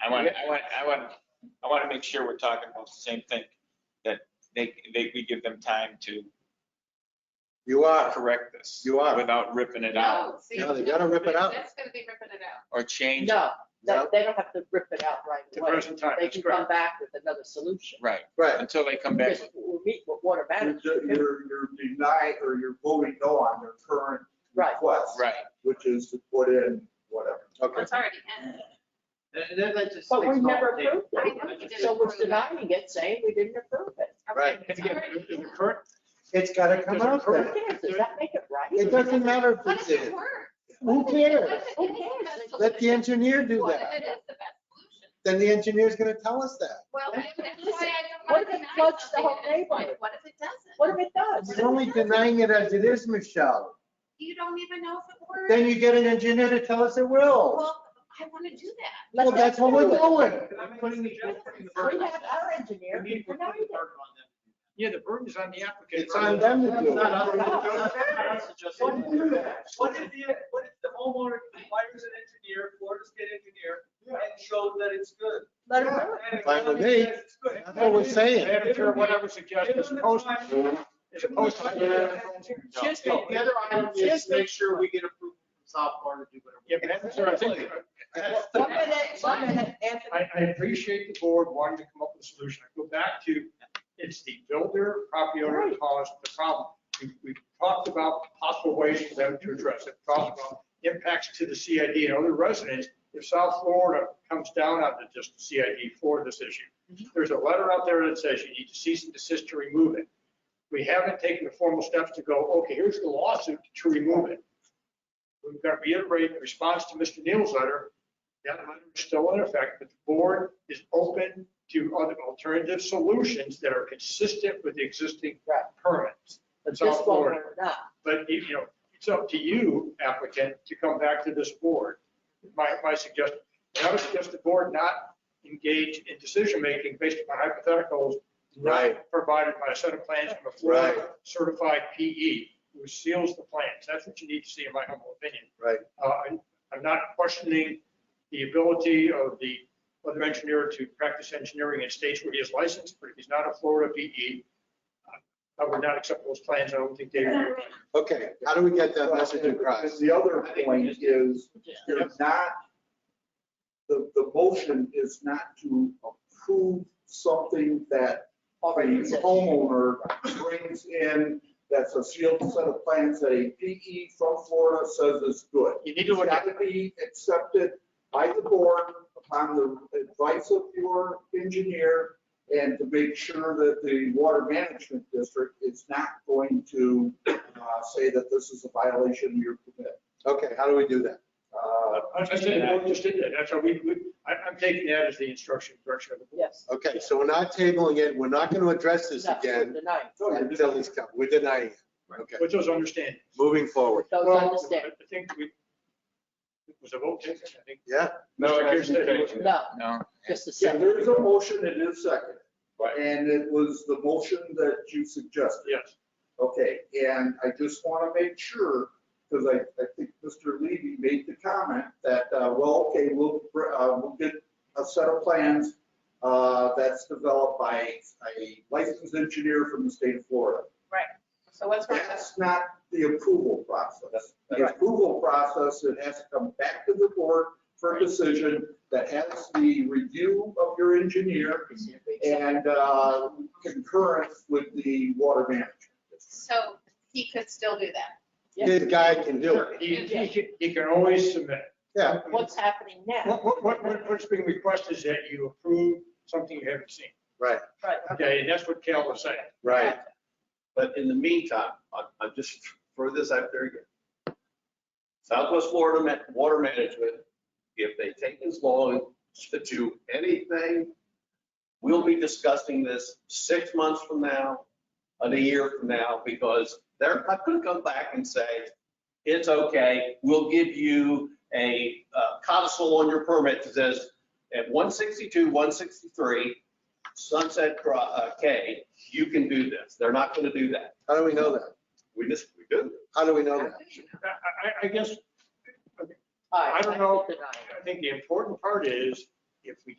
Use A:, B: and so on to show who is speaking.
A: I want, I want, I want, I want to make sure we're talking about the same thing, that they, they, we give them time to
B: You are,
A: correct this.
B: You are.
A: Without ripping it out
C: No, see,
B: No, they gotta rip it out.
C: That's gonna be ripping it out.
A: or change.
D: No, they,
B: No.
D: they don't have to rip it out right
E: The
D: away.
E: present time
D: They
E: is
D: can
E: correct.
D: come back with another solution.
A: Right,
B: right.
A: until they come back.
D: Because we'll meet with water
E: You're,
D: management.
E: you're you're denying, or you're voting no on their current
D: Right.
E: request,
A: Right,
E: which is to put in whatever.
B: Okay.
C: It's already in.
F: And then that just
D: But we
F: takes
D: never
F: all day.
D: approved
C: I
D: it.
C: know you didn't
D: So we're
C: approve it.
D: denying it, saying we didn't approve it.
B: Right.
C: Okay,
F: If
C: it's
F: you-
C: already
F: if the
C: in.
F: current,
B: It's gotta come
F: come
B: out
F: out
D: Who
F: Correct.
D: cares? Does that make it right?
B: It doesn't matter
C: What
B: if
C: if
B: it's
C: it
B: in.
C: works?
B: Who cares?
D: Who
C: What if it is
D: cares?
C: the best
B: Let the
C: solution?
B: engineer do
C: What if
B: that.
C: it is the best solution?
B: Then the engineer's gonna tell us that.
C: Well,
D: What
C: that's
D: if-
C: why I don't
D: listen, what
C: wanna
D: if it
C: deny
D: floods the
C: something
D: whole
C: at this point.
D: neighborhood?
C: What if it doesn't?
D: What if it does?
B: You're only denying it as it is, Michelle.
C: You don't even know if it works.
B: Then you get an engineer to tell us it will.
C: Well, I wanna do that.
D: Let
B: Well,
D: them
B: that's what we're
D: do it.
B: doing.
F: I'm putting the, I'm putting the
D: We
F: burden.
D: have our engineer.
F: We need to put the
D: denied
F: burden
D: it.
F: on them. Yeah, the burden is on the applicant.
B: It's on them to do it.
F: Not us. Not us to just-
E: What if the-
F: What if the, what if the homeowner hires an engineer, Florida State engineer, and shows that it's good?
D: Let them do it.
F: And if
B: Fine with
F: he
B: me.
F: says it's good,
B: That's what we're saying.
E: Madam Chair, what I would
F: suggest
E: is post-
F: is
E: post-
F: Just
E: No.
F: the other item is
E: Just
F: make sure we get approval from South Florida to do whatever.
E: Yeah, Madam Chair, I think- That's the-
D: One minute, one minute, Anthony.
E: I, I appreciate the board wanting to come up with a solution. I go back to, it's the builder, property owner that caused the problem. We- We've talked about possible ways for them to address it, talked about impacts to the CID and other residents. If South Florida comes down on the just CID for this issue, there's a letter out there that says you need to cease and desist to remove it. We haven't taken the formal steps to go, okay, here's the lawsuit to remove it. We've got to reiterate in response to Mr. Neal's letter, that letter is still in effect, but the board is open to other alternative solutions that are consistent with the existing
D: Right.
E: permits.
D: But
E: South
D: this one
E: Florida.
D: we're not.
E: But, you you know, it's up to you applicant to come back to this board. My, my suggestion, and I would suggest the board not engage in decision-making based upon hypotheticals not provided by a set of plans from a Florida certified PE who seals the plans. That's what you need to see in my humble opinion.
B: Right.
E: Uh, I'm- I'm not questioning the ability of the other engineer to practice engineering in states where he is licensed, but if he's not a Florida PE, I would not accept those plans. I don't think they.
B: Okay, how do we get that message
G: And
B: across?
G: The other point is,
E: Yeah.
G: you're not, the, the motion is not to approve something that
D: Already
G: the
D: exists.
G: homeowner brings in, that's a sealed set of plans that a PE from Florida says is good.
E: You need to look at,
G: It's got to be accepted by the board upon the advice of your engineer and to make sure that the water management district is not going to uh, say that this is a violation of your permit.
B: Okay, how do we do that?
G: Uh,
E: I I said, the board just did that. That's how we, we- I- I'm taking that as the instruction direction of the board.
D: Yes.
B: Okay, so we're not tabling it. We're not gonna address this
D: No, we're
B: again
D: denying.
G: so you're just-
B: until this comes. We're denying it. Okay,
E: With those understandings.
B: moving forward.
D: Those
E: Well,
D: understand.
E: I think we, it was a vote taken, I think.
B: Yeah,
A: No,
E: Mr. Pierce said it.
D: No,
A: No.
D: just a
G: Yeah,
D: second.
G: there is a motion, it is second.
E: Right.
G: And it was the motion that you suggested.
E: Yes.
G: Okay, and I just want to make sure, because I, I think Mr. Levy made the comment that, uh, well, okay, we'll, br- uh, we'll get a set of plans, uh, that's developed by a licensed engineer from the state of Florida.
C: So what's wrong with that?
G: That's not the approval process. The
D: Right.
G: approval process, it has to come back to the board for a decision that has the review of your engineer and, uh, concurrence with the water management.
C: So he could still do that.
D: Yeah.
B: this guy can do it.
E: He, he can- he can always submit.
B: Yeah,
D: What's happening now?
E: What, what, what- what, what's being requested is that you approve something you haven't seen.
B: right,
D: Right.
E: Okay, and that's what Cal was saying.
B: right.
H: But in the meantime, I'm, I'm just throw this out there again. Southwest Florida Ma- Water Management, if they take as long to do anything, we'll be discussing this six months from now, and a year from now, because they're not gonna come back and say, it's okay, we'll give you a uh, codicil on your permit that says at one sixty-two, one sixty-three, Sunset Cro- uh, K, you can do this. They're not gonna do that.
B: How do we know that?
H: We just, we do.
B: How do we know
C: How
B: that?
C: do you know?
E: I, I, I guess,
D: All right,
E: I don't know.
D: denying.
E: I think the important part is, if we